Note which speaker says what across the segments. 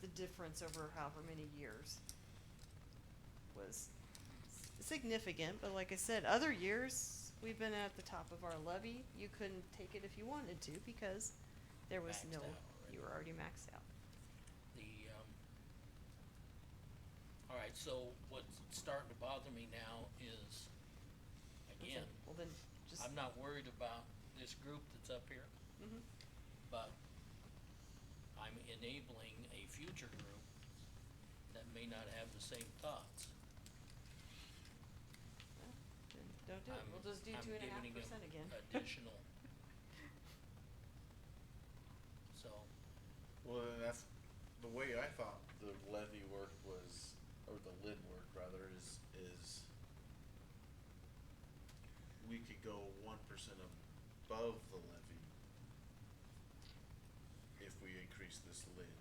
Speaker 1: the difference over however many years was significant, but like I said, other years, we've been at the top of our levy. You couldn't take it if you wanted to because there was
Speaker 2: Maxed
Speaker 1: no,
Speaker 2: out already.
Speaker 1: you were already maxed out.
Speaker 2: The, um, all right, so what's starting to bother me now is,
Speaker 1: That's
Speaker 2: again,
Speaker 1: it. Well, then, just,
Speaker 2: I'm not worried about this group that's up here,
Speaker 1: mhm,
Speaker 2: but I'm enabling a future group that may not have the same thoughts.
Speaker 1: then don't do it.
Speaker 2: I'm-
Speaker 1: We'll just do
Speaker 2: I'm
Speaker 1: two and a half
Speaker 2: giving them
Speaker 1: percent again.
Speaker 2: Additional. So,
Speaker 3: Well, then that's the way I thought the levy worked was, or the lid worked rather, is, is we could go one percent above the levy if we increase this lid.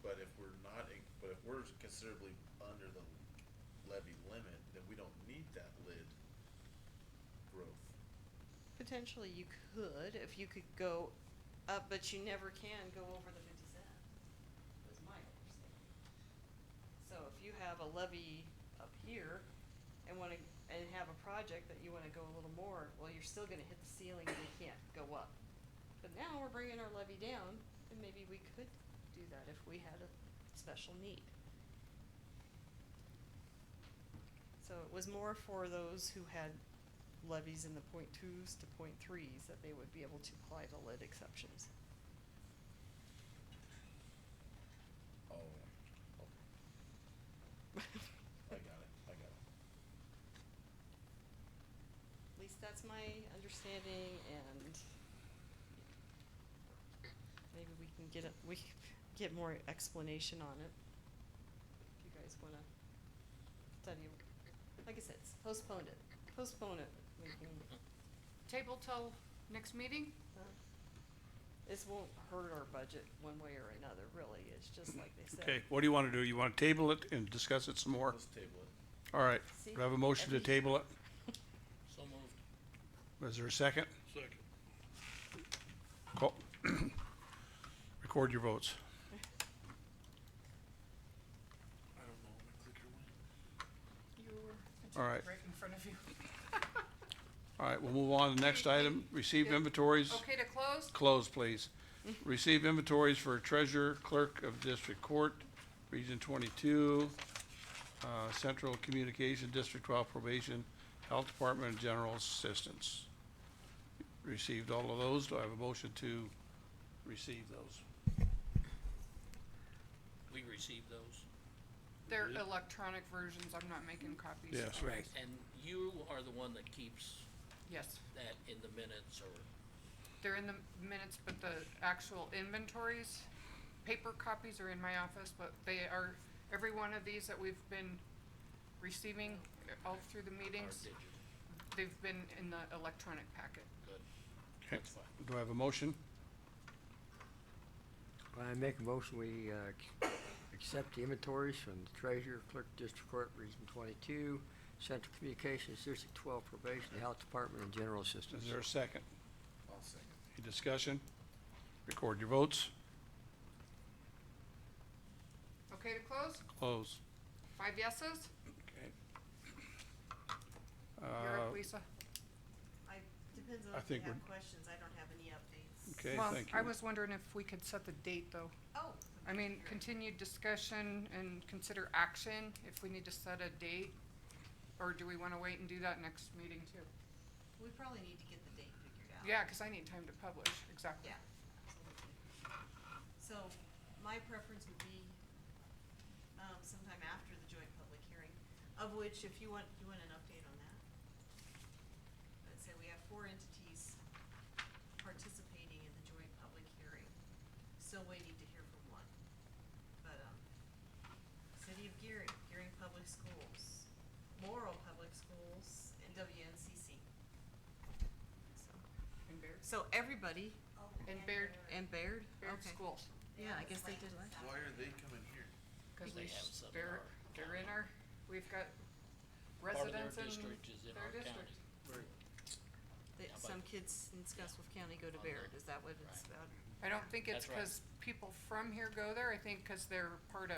Speaker 3: But if we're not, in- but if we're considerably under the levy limit, then we don't need that lid growth.
Speaker 1: Potentially you could, if you could go up, but you never can go over the fifty cent, was my understanding. So if you have a levy up here and wanna, and have a project that you wanna go a little more, well, you're still gonna hit the ceiling and you can't go up. But now we're bringing our levy down, and maybe we could do that if we had a special need. So it was more for those who had levies in the point twos to point threes that they would be able to apply the lid exceptions.
Speaker 3: Oh, okay, I got it, I got it.
Speaker 1: At least that's my understanding and maybe we can get a, we can get more explanation on it. If you guys wanna study, it. like I said, s- postpone it, postpone it, we can,
Speaker 4: Table till next meeting?
Speaker 1: uh, this won't hurt our budget one way or another, really, it's just like they said.
Speaker 5: Okay, what do you wanna do? You wanna table it and discuss it some more?
Speaker 3: Let's table it.
Speaker 5: All right,
Speaker 1: See,
Speaker 5: do I have a motion to
Speaker 1: every-
Speaker 5: table it?
Speaker 2: so moved.
Speaker 5: Is there a second?
Speaker 6: Second.
Speaker 5: Call- Record your votes.
Speaker 6: I don't know, my clicker went.
Speaker 5: All right,
Speaker 4: Right in front of you.
Speaker 5: all right, we'll move on to the next item. Receive inventories,
Speaker 4: Okay to close?
Speaker 5: close, please. Receive inventories for treasurer, clerk of district court, region twenty-two, uh, central communication, district twelve probation, health department, and general assistance. Received all of those. Do I have a motion to receive those?
Speaker 2: We received those.
Speaker 4: They're electronic versions, I'm not making copies.
Speaker 5: Yes.
Speaker 2: Right. And you are the one that keeps
Speaker 4: Yes,
Speaker 2: that in the minutes or,
Speaker 4: they're in the minutes, but the actual inventories, paper copies are in my office, but they are, every one of these that we've been receiving uh, all through the
Speaker 2: or
Speaker 4: meetings,
Speaker 2: did you?
Speaker 4: they've been in the electronic packet.
Speaker 2: Good.
Speaker 5: Okay.
Speaker 2: That's fine.
Speaker 5: Do I have a motion?
Speaker 7: I make a motion, we, uh, ac- accept the inventories from the treasurer, clerk, district court, region twenty-two, central communications, district twelve probation, the health department, and general assistance.
Speaker 5: Is there a second?
Speaker 3: I'll second.
Speaker 5: Any discussion? Record your votes.
Speaker 4: Okay to close?
Speaker 5: Close.
Speaker 4: Five yeses?
Speaker 5: Okay.
Speaker 4: You're
Speaker 5: Uh,
Speaker 4: up, Lisa.
Speaker 1: I, depends on
Speaker 5: I
Speaker 1: if they
Speaker 5: think
Speaker 1: have
Speaker 5: we're-
Speaker 1: questions, I don't have any updates.
Speaker 5: Okay,
Speaker 4: Well,
Speaker 5: thank
Speaker 4: I
Speaker 5: you.
Speaker 4: was wondering if we could set the date, though.
Speaker 1: Oh.
Speaker 4: I mean, continued discussion and consider action if we need to set a date? Or do we wanna wait and do that next meeting too?
Speaker 1: We probably need to get the date figured out.
Speaker 4: Yeah, cause I need time to publish, exactly.
Speaker 1: Yeah, absolutely. So my preference would be, um, sometime after the joint public hearing, of which if you want, you want an update on that? Let's say we have four entities participating in the joint public hearing, still waiting to hear from one. But, um, City of Gearing, Gearing Public Schools, Morrow Public Schools, and WNCC. So.
Speaker 4: And Baird,
Speaker 1: So everybody
Speaker 4: and Baird,
Speaker 1: and Baird,
Speaker 4: Baird
Speaker 1: okay.
Speaker 4: schools,
Speaker 1: Yeah, I guess they did last.
Speaker 3: Why are they coming here?
Speaker 4: cause
Speaker 2: They
Speaker 4: we,
Speaker 2: have some in
Speaker 4: they're,
Speaker 2: our
Speaker 4: they're in our, we've got
Speaker 2: Part of their
Speaker 4: residents in
Speaker 2: district is in
Speaker 4: their
Speaker 2: our
Speaker 4: district.
Speaker 2: county.
Speaker 1: They,
Speaker 2: Yeah.
Speaker 1: some kids in Scottsbluff County go to
Speaker 2: On
Speaker 1: Baird,
Speaker 2: the-
Speaker 1: is that what it's
Speaker 2: right.
Speaker 1: about?
Speaker 4: I don't think it's
Speaker 2: That's right.
Speaker 4: because people from here go there, I think because they're part of.